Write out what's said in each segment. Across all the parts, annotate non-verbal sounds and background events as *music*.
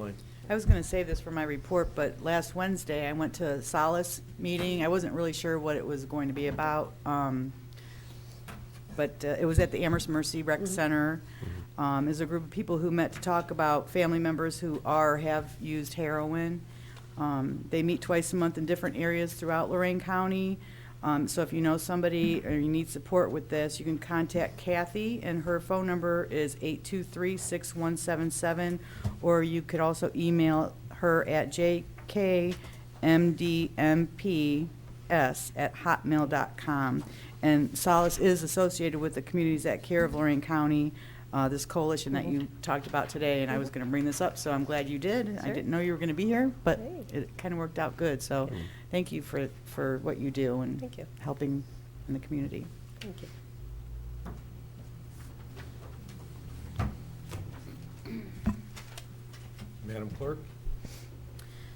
Elaine? I was going to save this for my report, but last Wednesday, I went to a Solace meeting. I wasn't really sure what it was going to be about, um, but uh, it was at the Amherst Mercy Rec Center. Um, Is a group of people who met to talk about family members who are, have used heroin. Um, They meet twice a month in different areas throughout Lorraine County. Um, So if you know somebody or you need support with this, you can contact Kathy, and her phone number is 823-6177, or you could also email her at jkmdmps@hotmail.com. And Solace is associated with the Communities at Care of Lorraine County, uh, this coalition that you talked about today, and I was going to bring this up, so I'm glad you did. I Mm-hmm. Sure. didn't know you were going to be here, but Great. it kind of worked out good, so thank you for, for what you do and Thank you. helping in the community. Thank you. Madam Clerk?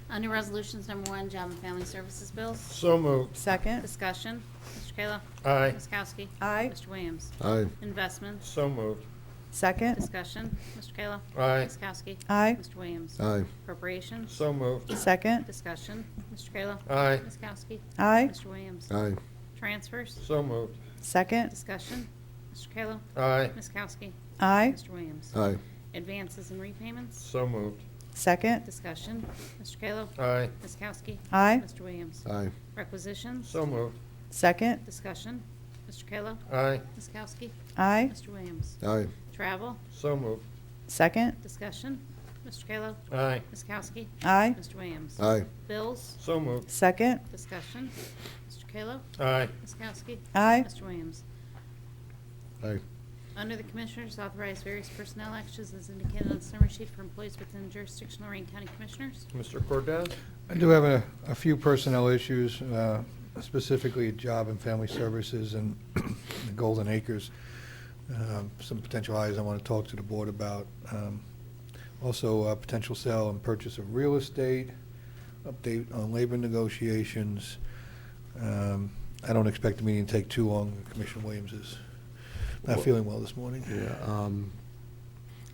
Under Resolutions Number One, Job and Family Services Bills. So moved. Second? Discussion. Mr. Kayla. Aye. Ms. Kowski. Aye. Mr. Williams. Aye. Investments. So moved. Second? Discussion. Mr. Kayla. Aye. Ms. Kowski. Aye. Mr. Williams. Aye. Appropriations. So moved. Second? Discussion. Mr. Kayla. Aye. Ms. Kowski. Aye? Mr. Williams. Aye. Transfers. So moved. Second? Discussion. Mr. Kayla. Aye. Ms. Kowski. Aye? Mr. Williams. Aye. Advances and repayments. So moved. Second? Discussion. Mr. Kayla. Aye. Ms. Kowski. Aye? Mr. Williams. Aye. Requisitions. So moved. Second? Discussion. Mr. Kayla. Aye. Ms. Kowski. Aye? Mr. Williams. Aye. Travel, So moved. Second? discussion, Mr. Kayla, Aye. Ms. Kowski, Aye? Mr. Williams. Aye. Bills, So moved. Second? discussion, Mr. Kayla, Aye. Ms. Kowski, Aye? Mr. Williams. Aye. Under the Commissioners, authorize various personnel actions as indicated on the summary sheet for employees within jurisdiction Lorraine County Commissioners. Mr. Cordez? I do have a, a few personnel issues, uh, specifically Job and Family Services and *clears throat* the Golden Acres. Um, Some potential hires I want to talk to the board about. Um, Also, uh, potential sale and purchase of real estate, update on labor negotiations. Um, I don't expect the meeting to take too long. Commissioner Williams is not feeling well this morning. Yeah, um,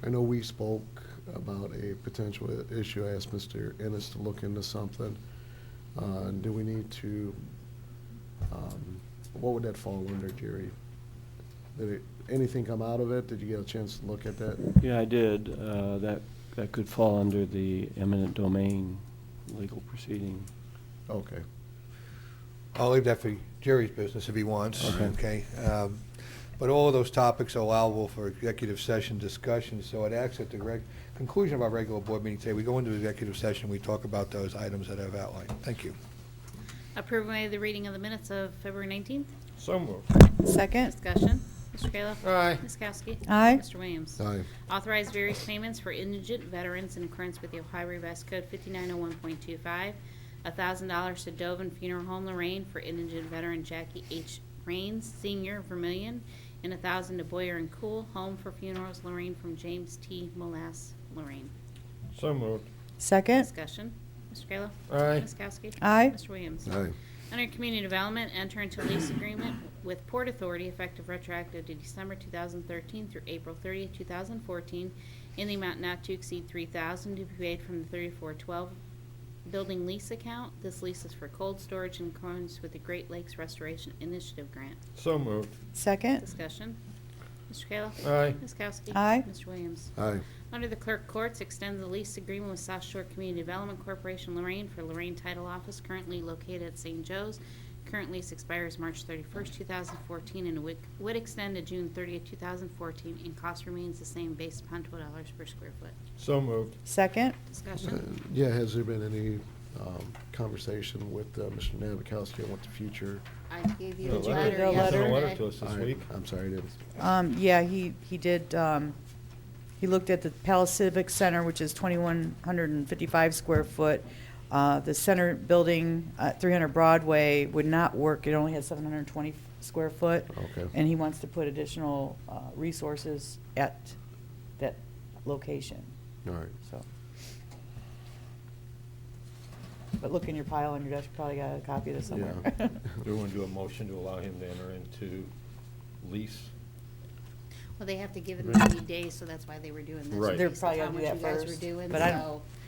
I know we spoke about a potential i- issue. I asked Mr. Ennis to look into something. Uh, do we need to, um, what would that fall under, Jerry? Did it, anything come out of it? Did you get a chance to look at that? Yeah, I did. Uh, That, that could fall under the eminent domain legal proceeding. Okay, I'll leave that for Jerry's business if he wants, okay? Um, But all of those topics are allowable for executive session discussion, so it acts at the reg- conclusion of our regular board meeting today. We go into executive session, we talk about those items that I've outlined. Thank you. Approve and waive the reading of the minutes of February 19th. So moved. Second? Discussion, Mr. Kayla. Aye. Ms. Kowski. Aye. Mr. Williams. aye, Authorize various payments for indigent veterans in accordance with the Ohio Revised Code 5901.25. $1,000 to Dovin Funeral Home Lorraine for indigent veteran Jackie H. Rains, Senior, Vermillion, and $1,000 to Boyer and Cool Home for Funerals Lorraine from James T. Molass, Lorraine. So moved. Second? Discussion. Mr. Kayla? Aye. Ms. Kowski? Aye. Mr. Williams? aye, Under Community Development, enter into lease agreement with Port Authority effective retroactive to December 2013 through April 30, 2014, in the amount not to exceed 3000 to be paid from the 3412 building lease account. This lease is for cold storage in accordance with the Great Lakes Restoration Initiative Grant. So moved. Second? Discussion. Mr. Kayla? Aye. Ms. Kowski? Aye. Mr. Williams? aye, Under the Clerk Courts, extend the lease agreement with South Shore Community Development Corporation Lorraine for Lorraine Title Office currently located at St. Joe's. Current lease expires March 31st, 2014, and would would extend to June 30th, 2014, and cost remains the same based upon $12 per square foot. So moved. Second? Uh, Discussion? Yeah, has there been any, um, conversation with, uh, Mr. Nabokowski on what the future? I gave The you a you get a letter He sent a letter yesterday. to us this I- week. I'm sorry, I didn't. Um, yeah, he, he did, um, he looked at the Palace Civic Center, which is twenty-one hundred and fifty-five square foot. Uh, the center building, uh, three hundred Broadway would not work, it only has seven hundred and twenty square foot. Okay. And he wants to put additional, uh, resources at that location, All right, *laughs* so. But look in your pile on your desk, you probably got a copy of this somewhere. *laughs* Yeah. Do we want to do a motion to allow him to enter into lease? Well, they have to give it 90 days, so that's why they were doing this. Right. They're based probably upon gonna do what that you guys first, were doing, but I don't- so